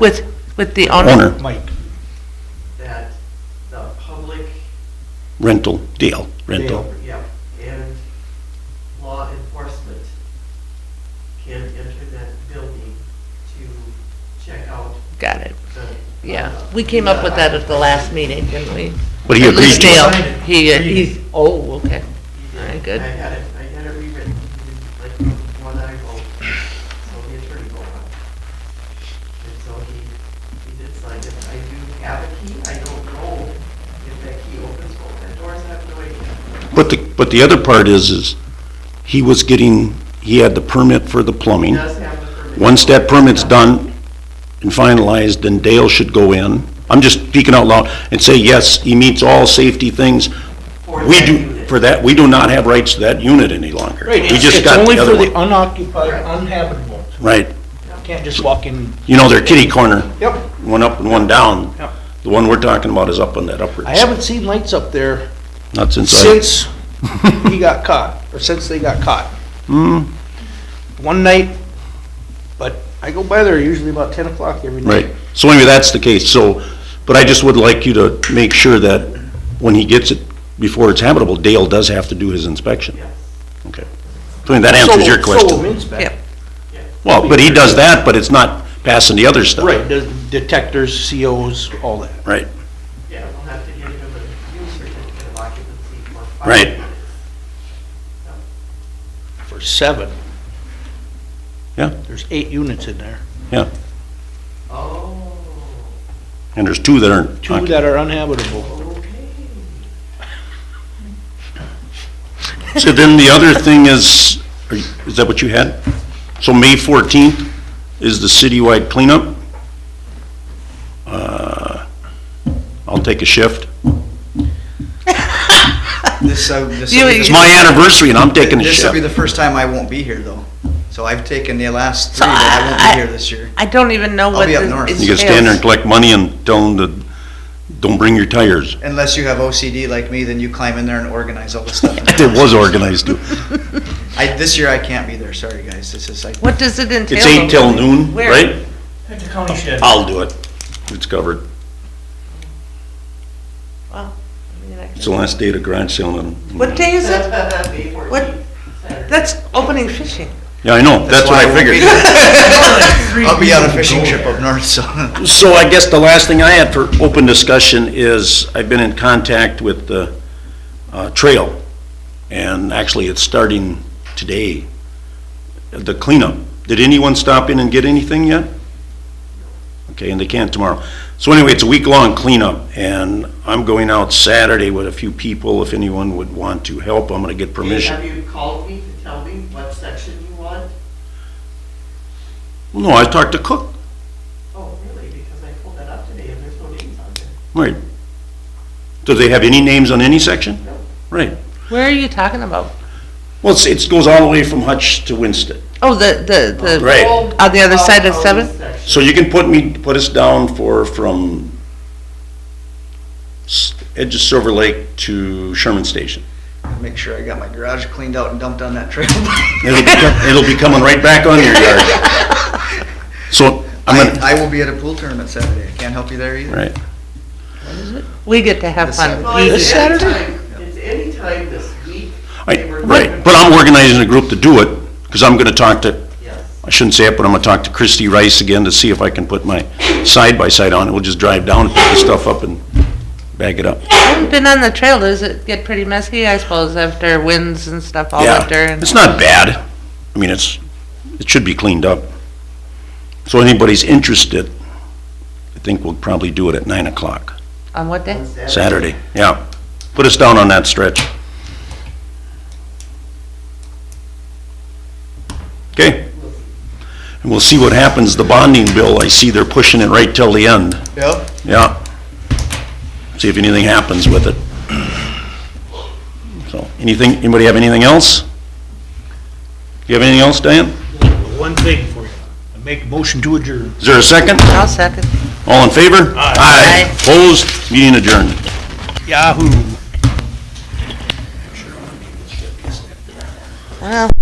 with, with the owner? owner Mike, that the public rental deal, rental. jail, yeah, and law enforcement can enter that building to check out Got it, the. uh, yeah. We came up with that at the last meeting, didn't we? But he agreed to it. Dale, Signed it. he, Read it. he's, oh, okay. All right, good. I had it, I had it rewritten, like the one I wrote, so the attorney wrote it. And so he, he did sign it. I do have a key, I don't know if that key opens both the doors, I have no idea. But the, but the other part is, is he was getting, he had the permit for the He plumbing. does have the permit. Once that permit's done and finalized, then Dale should go in, I'm just speaking out loud, and say, yes, he meets all safety things. For We that do, unit. for that, we do not have rights to that unit any longer. right, We it's just it's got only the for other the one. unoccupied, uninhabitable. Right, Can't just walk in. you know, they're kitty corner, Yep. one up and one down. Yep. The one we're talking about is up on that upper. I haven't seen lights up there Not since I, since he got caught, or since they got caught. Hmm. One night, but I go by there usually about ten o'clock every night. right, so anyway, that's the case, so, but I just would like you to make sure that when he gets it, before it's habitable, Dale does have to do his inspection. Yes, Okay. So I mean, that So answers will- your question. So will Minzback. Yep. Well, but he does that, but it's not passing the other stuff. Right, the detectors, COs, all that. Right, yeah, we'll have to give him a new certificate of occupancy for five Right. units. for seven. Yeah. There's eight units in there, yeah. Oh, And there's two that aren't. two that are uninhabitable. okay. So then the other thing is, are you- is that what you had? So May 14th is the citywide cleanup. Uh, I'll take a shift. This, uh, this You- will be It's the- my anniversary and I'm taking a This will be shift. the first time I won't be here, though. So I've taken the last So three, but I won't I- be here this year. I don't even know what be up this north. entails. You can stand there and collect money and tell them to, don't bring your tires. Unless you have OCD like me, then you climb in there and organize all the stuff. It was organized too. I, this year I can't be there, sorry, guys. This is like, What does it entail? It's eight till noon, Where? right? I'll do it. It's covered. It's the last day of the garage sale and. What day is it? May What? 14th, Saturday. That's opening fishing. Yeah, I know, that's what why I won't be figured. there. I'll be on a fishing trip up north, so. So I guess the last thing I had for open discussion is, I've been in contact with the uh, trail, and actually it's starting today, the cleanup. Did anyone stop in and get anything yet? Okay, and they can't tomorrow. So anyway, it's a week-long cleanup, and I'm going out Saturday with a few people, if anyone would want to help, I'm gonna get permission. Have you called me to tell me what section you want? No, I talked to Cook, Oh, really? Because I pulled that up today and there's no names on there. right. Do they have any names on any section? No. Right. Where are you talking about? Well, it's, it goes all the way from Hutch to Winston. Oh, the, the, the. Right. On the other side of Oh, seven? section. So you can put me, put us down for, from s- edge of Silver Lake to Sherman Station. Make sure I got my garage cleaned out and dumped on that trail. It'll be, com- it'll be coming right back on your yard. So I'm I, gonna, I will be at a pool tournament Saturday. I can't help you there either. right, We get to have This fun. Saturday. Well, We- it's This Saturday? anytime, it's anytime this week. I, They were- right. But I'm organizing a group to do it, because I'm gonna talk to, Yes. I shouldn't say it, but I'm gonna talk to Christy Rice again to see if I can put my side-by-side on it. We'll just drive down, pick the stuff up and bag it up. I haven't been on the trail. Does it get pretty messy, I suppose, after winds and stuff all Yeah, winter? and- It's not bad. I mean, it's, it should be cleaned up. So anybody's interested, I think we'll probably do it at nine o'clock, On what day? Saturday, yeah. Put us down on that stretch. Okay? And we'll see what happens, the bonding bill, I see they're pushing it right till the end, Yep. yeah. See if anything happens with it. So, anything, anybody have anything else? You have anything else, Diane? One thing for you, I make a motion to adjourn. Is there a second? I'll second. All in favor? Aye. Opposed? Meeting adjourned. Yahoo! Well.